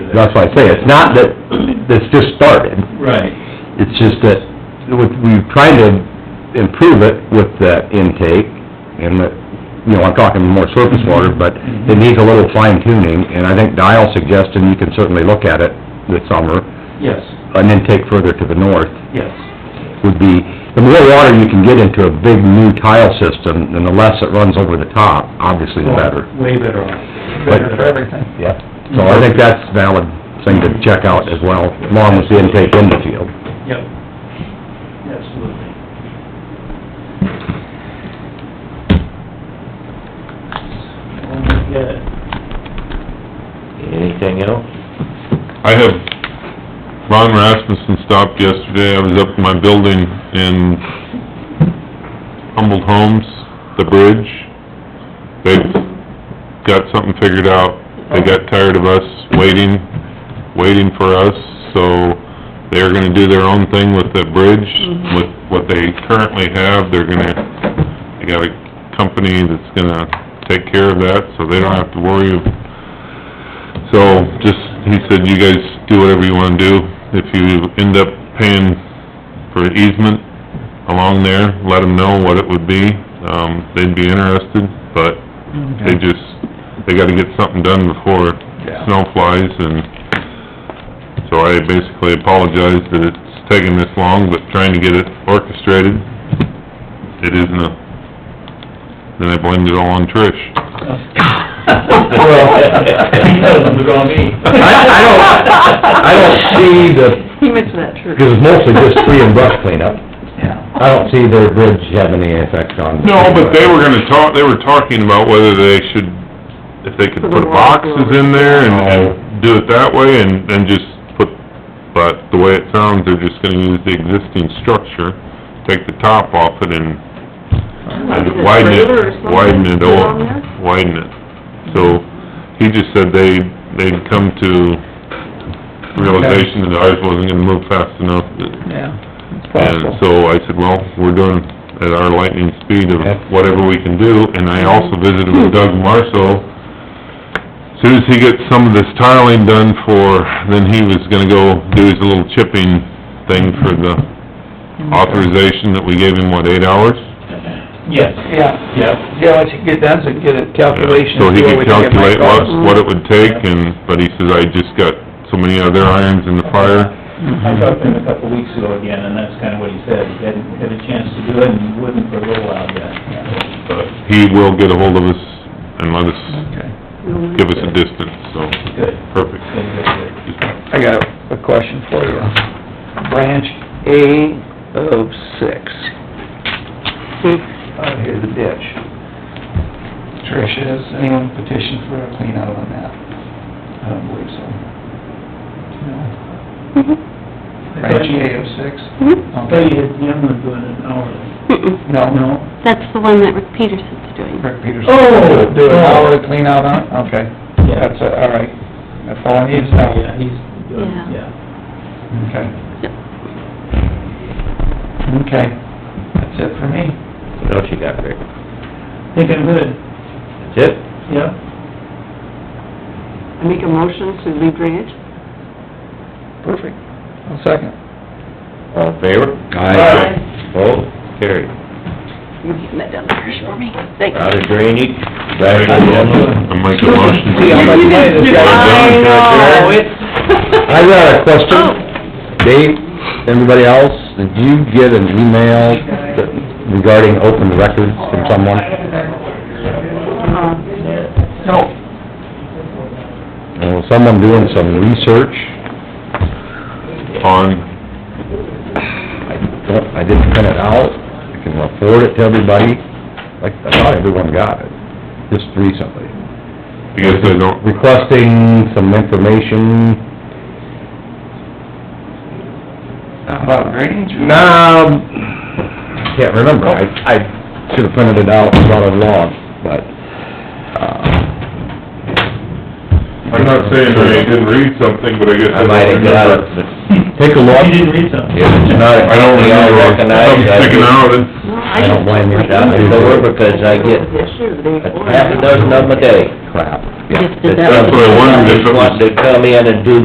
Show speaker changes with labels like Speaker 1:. Speaker 1: that's why I say, it's not that, it's just started,
Speaker 2: Right,
Speaker 1: it's just that, with- we've tried to improve it with the intake, and that, you know, I'm talking more surface water, but it needs a little fine tuning, and I think Dial suggested you can certainly look at it this summer,
Speaker 2: yes,
Speaker 1: an intake further to the north,
Speaker 2: yes,
Speaker 1: would be, the more water you can get into a big new tile system, and the less it runs over the top, obviously the better.
Speaker 2: way better off.
Speaker 1: Better for
Speaker 2: everything.
Speaker 1: Yeah. So I think that's a valid thing to check out as well, along with the intake in the field.
Speaker 2: Yep, absolutely. Good.
Speaker 3: Anything else?
Speaker 4: I have, Ron Rasmussen stopped yesterday, I was up in my building in Humboldt Homes, the bridge. They've got something figured out, they got tired of us waiting, waiting for us, so they're gonna do their own thing with the bridge, with what they currently have, they're gonna, they got a company that's gonna take care of that, so they don't have to worry of so, just, he said, you guys do whatever you wanna do. If you end up paying for an easement along there, let them know what it would be. Um, they'd be interested, but they just, they gotta get something done before snow flies and... So I basically apologize that it's taking this long, but trying to get it orchestrated, it isn't a... Then I blamed it all on Trish.
Speaker 1: I, I don't, I don't see the,
Speaker 5: He mentioned that, true.
Speaker 1: because it's mostly just tree and brush cleanup. I don't see their bridge having any effect on.
Speaker 4: No, but they were gonna talk, they were talking about whether they should, if they could put boxes in there and, and do it that way and, and just put, but the way it sounds, they're just gonna use the existing structure, take the top off it and and widen it, widen it over, widen it. So, he just said they, they'd come to realization that ours wasn't gonna move fast enough. And so I said, well, we're doing at our lightning speed of
Speaker 1: Yeah.
Speaker 4: whatever we can do, and I also visited with Doug Marshall. Soon as he gets some of this tiling done for, then he was gonna go do his little chipping thing for the authorization that we gave him, what, eight hours?
Speaker 2: Yes. Yeah. Yep. Yeah, once you get done, so get a
Speaker 4: So he could calculate what, what it would take, and, but he says, I just got so many other irons in the fire.
Speaker 2: I talked to him a couple of weeks ago again, and that's kind of what he said, he hadn't had a chance to do it, and he wouldn't for a little while yet.
Speaker 4: But he will get ahold of us and let us, give us a distance, so,
Speaker 2: Good,
Speaker 4: perfect.
Speaker 2: good, good, good.
Speaker 6: I got a question for you. Branch A of six.
Speaker 2: Hmm.
Speaker 6: Out here, the ditch. Trish, has anyone petitioned for a clean out on that? I don't believe so. No.
Speaker 5: Mm-hmm.
Speaker 6: Branch A of six?
Speaker 2: I'll tell you, the young one doing it hourly.
Speaker 5: Mm-mm.
Speaker 6: No, no.
Speaker 2: No?
Speaker 5: That's the one that Rick Peterson's doing.
Speaker 6: Rick Peterson.
Speaker 2: Oh,
Speaker 6: Do an
Speaker 2: oh.
Speaker 6: hour of clean out on it? Okay.
Speaker 2: Yeah.
Speaker 6: That's, a- all right. That's all I need to
Speaker 2: Yeah,
Speaker 6: know.
Speaker 2: he's doing,
Speaker 5: Yeah.
Speaker 2: yeah.
Speaker 6: Okay.
Speaker 5: Yep.
Speaker 6: Okay. That's it for me.
Speaker 3: What else you got, Rick?
Speaker 2: Think I'm good,
Speaker 3: That's it?
Speaker 2: yeah?
Speaker 5: I make a motion to leave Ranch.
Speaker 6: Perfect. One second.
Speaker 3: All in favor?
Speaker 1: Aye.
Speaker 3: Both? Carried.
Speaker 5: You're getting that down there for me. Thanks.
Speaker 3: Out of drainage, back to the...
Speaker 4: I make a motion.
Speaker 6: See how much money this guy-
Speaker 3: I
Speaker 1: Oh,
Speaker 3: know,
Speaker 1: I got a
Speaker 5: Oh.
Speaker 1: question. Dave, everybody else, did you get an email that- regarding open records from someone?
Speaker 5: Uh,
Speaker 6: No.
Speaker 1: You know, someone doing some research,
Speaker 4: On,
Speaker 1: I don't, I didn't print it out, I can afford it to everybody, like, I thought everyone got it, just recently.
Speaker 4: I guess I don't,
Speaker 1: Requesting some information.
Speaker 6: About drainage?
Speaker 1: Nah, I can't remember, I, I should've printed it out and brought it along, but, uh...
Speaker 4: I'm not saying that I didn't read something, but I guess
Speaker 3: I
Speaker 4: I
Speaker 3: might have
Speaker 4: don't
Speaker 3: got
Speaker 4: remember.
Speaker 3: it, but
Speaker 1: Take a look.
Speaker 2: You didn't read something?
Speaker 3: if it's not
Speaker 4: I don't
Speaker 3: something I
Speaker 4: remember,
Speaker 3: recognize,
Speaker 4: something
Speaker 3: I
Speaker 4: sticking
Speaker 3: just-
Speaker 4: out, it's,
Speaker 5: no,
Speaker 3: I don't blame you, John, it's
Speaker 1: Don't
Speaker 3: over
Speaker 1: worry,
Speaker 3: because I get
Speaker 5: Yesterday or the day before.
Speaker 3: a half a dozen of them a day.
Speaker 1: Crap, yeah.
Speaker 5: Just did that.
Speaker 4: that's what I wondered if it was...
Speaker 3: Wanting to come in and do